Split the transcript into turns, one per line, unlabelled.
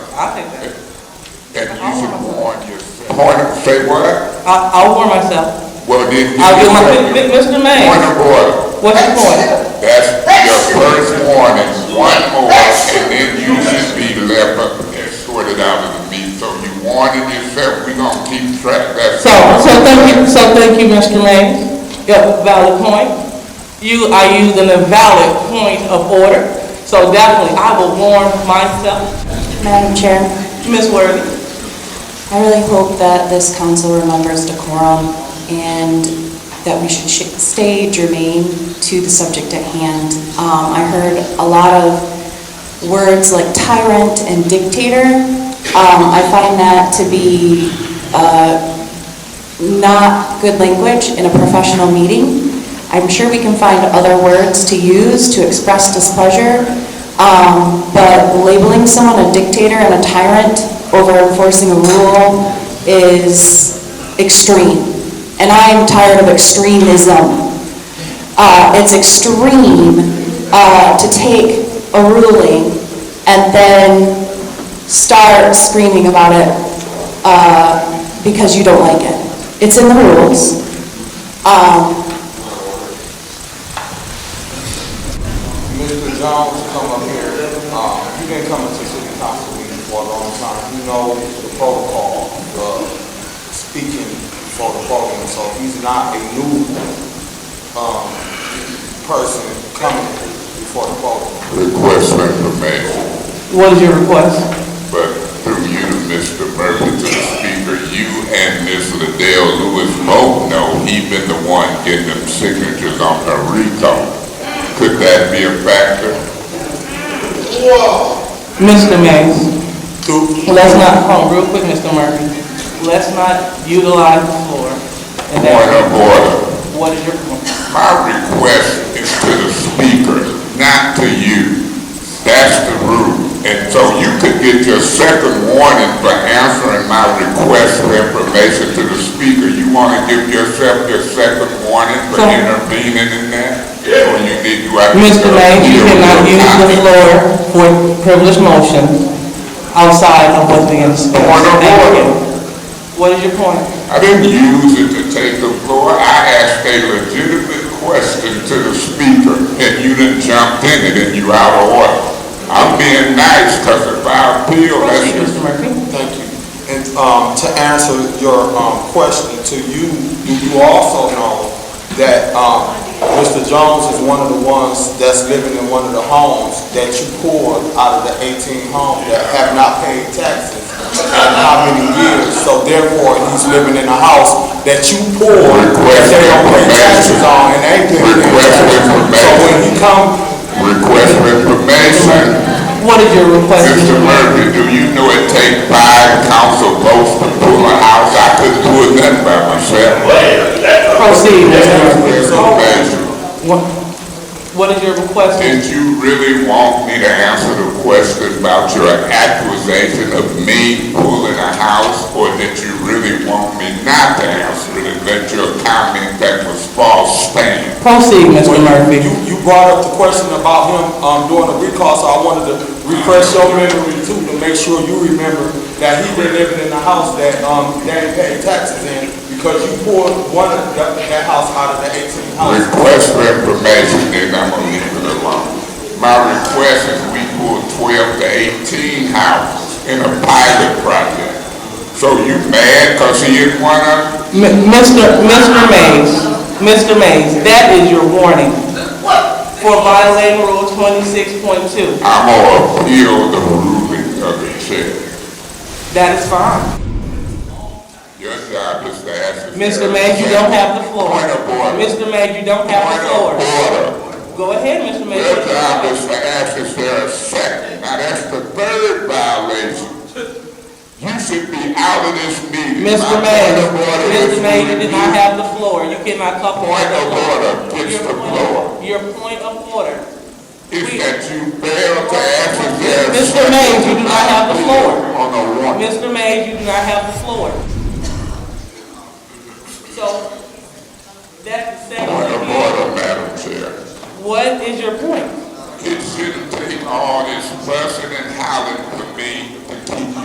I'll take that.
and you should warn yourself. Point, say what?
I, I'll warn myself.
Well, then.
I'll get my,
you-
Mi- Mi- Mr.
Point
May,
of order.
what's your point?
That's your first warning, one more, and then you should be left up and sorted out of the meeting. So you warning yourself, we gonna keep track, that's.
So, so thank you, so thank you, Mr. May. Yeah, valid point. You are using a valid point of order, so definitely I will warn myself.
Madam Chair,
Ms. Worthy?
I really hope that this council remembers decorum and that we should sh- stay germane to the subject at hand. Um, I heard a lot of words like tyrant and dictator. Um, I find that to be not good language in a professional meeting. I'm sure we can find other words to use to express displeasure, um, but labeling someone a dictator and a tyrant over enforcing a rule is extreme. And I am tired of extremism. Uh, It's extreme uh, to take a ruling and then start screaming about it because you don't like it. It's in the rules. Um,
Mr. Jones come up here, um, he been coming to city council meetings for a long time, he knows the protocol of speaking for the voting, so he's not a new, um, person coming before the voting.
Request for information.
What is your request?
But through you, Mr. Murphy, to the speaker, you and Ms. Liddell Lewis both know he been the one getting them signatures on the RICO. Could that be a factor?
Mr. Mays?
Through,
Let's not, hold on, real quick, Mr. Murphy. Let's not utilize the floor. And
point
that,
of order.
what is your point?
My request is to the speaker, not to you. That's the rule. And so you could get your second warning for answering my request for information to the speaker. You want to give yourself your second warning for
So-
intervening in that? Yeah. Or you need to...
Mr. Mays, you cannot use the floor for privileged motions outside of what's being discussed.
Point of
Thank you.
order.
What is your point?
I didn't use it to take the floor. I asked a legitimate question to the speaker, and you didn't jump in it, and you out of order. I'm being nice, because if I appeal, that's
Proceed,
just...
Mr. Murphy.
Thank you. And, um, to answer your, um, question to you, do you also know that, um, Mr. Jones is one of the ones that's living in one of the homes that you poured out of the eighteen homes that have not paid taxes in how many years? So therefore, he's living in a house that you poured, that they don't pay taxes on, and they pay taxes. So when he come,
Request for information.
What is your request?
Mr. Murphy, do you know it take five council votes to pull a house? I couldn't do it nothing by myself.
Proceed, Mr. Murphy.
Request for information.
What, what is your request?
Did you really want me to answer the question about your accusation of me pulling a house? Or did you really want me not to answer it and let your comment that was false stand?
Proceed, Mr. Murphy.
You, you brought up the question about him, um, doing a recall, so I wanted to refresh your memory too, to make sure you remember that he been living in the house that, um, they ain't paying taxes in, because you poured one of that, that house out of the eighteen houses.
Request for information, then I'm gonna leave it alone. My request is we pull twelve to eighteen houses in a pilot project. So you mad cause he is one of,
M-
them?
Mr. Mr. Mays, Mr. Mays, that is your warning. For violating rule twenty-six point two.
I'm gonna appeal the ruling of the chair.
That is fine.
Your job is to ask. the
Mr.
chair.
Mays, you don't have the floor.
Point of order.
Mr. Mays, you don't have the floor.
Point of order.
Go ahead, Mr. Mays.
Your job is to ask if there a second. Now that's the third violation. You should be out of this meeting. My
Mr.
point
Mays,
of order is
Mr. Mays, you did not
you-
have the floor. You cannot couple.
Point of order gets the floor.
Your point of order.
Is that you failed to ask if there a
Mr.
second.
Mays, you do not have the floor.
On a warning.
Mr. Mays, you do not have the floor. So, that's the second.
Point of order, Madam Chair.
What is your point?
It shouldn't take all this fussing and howling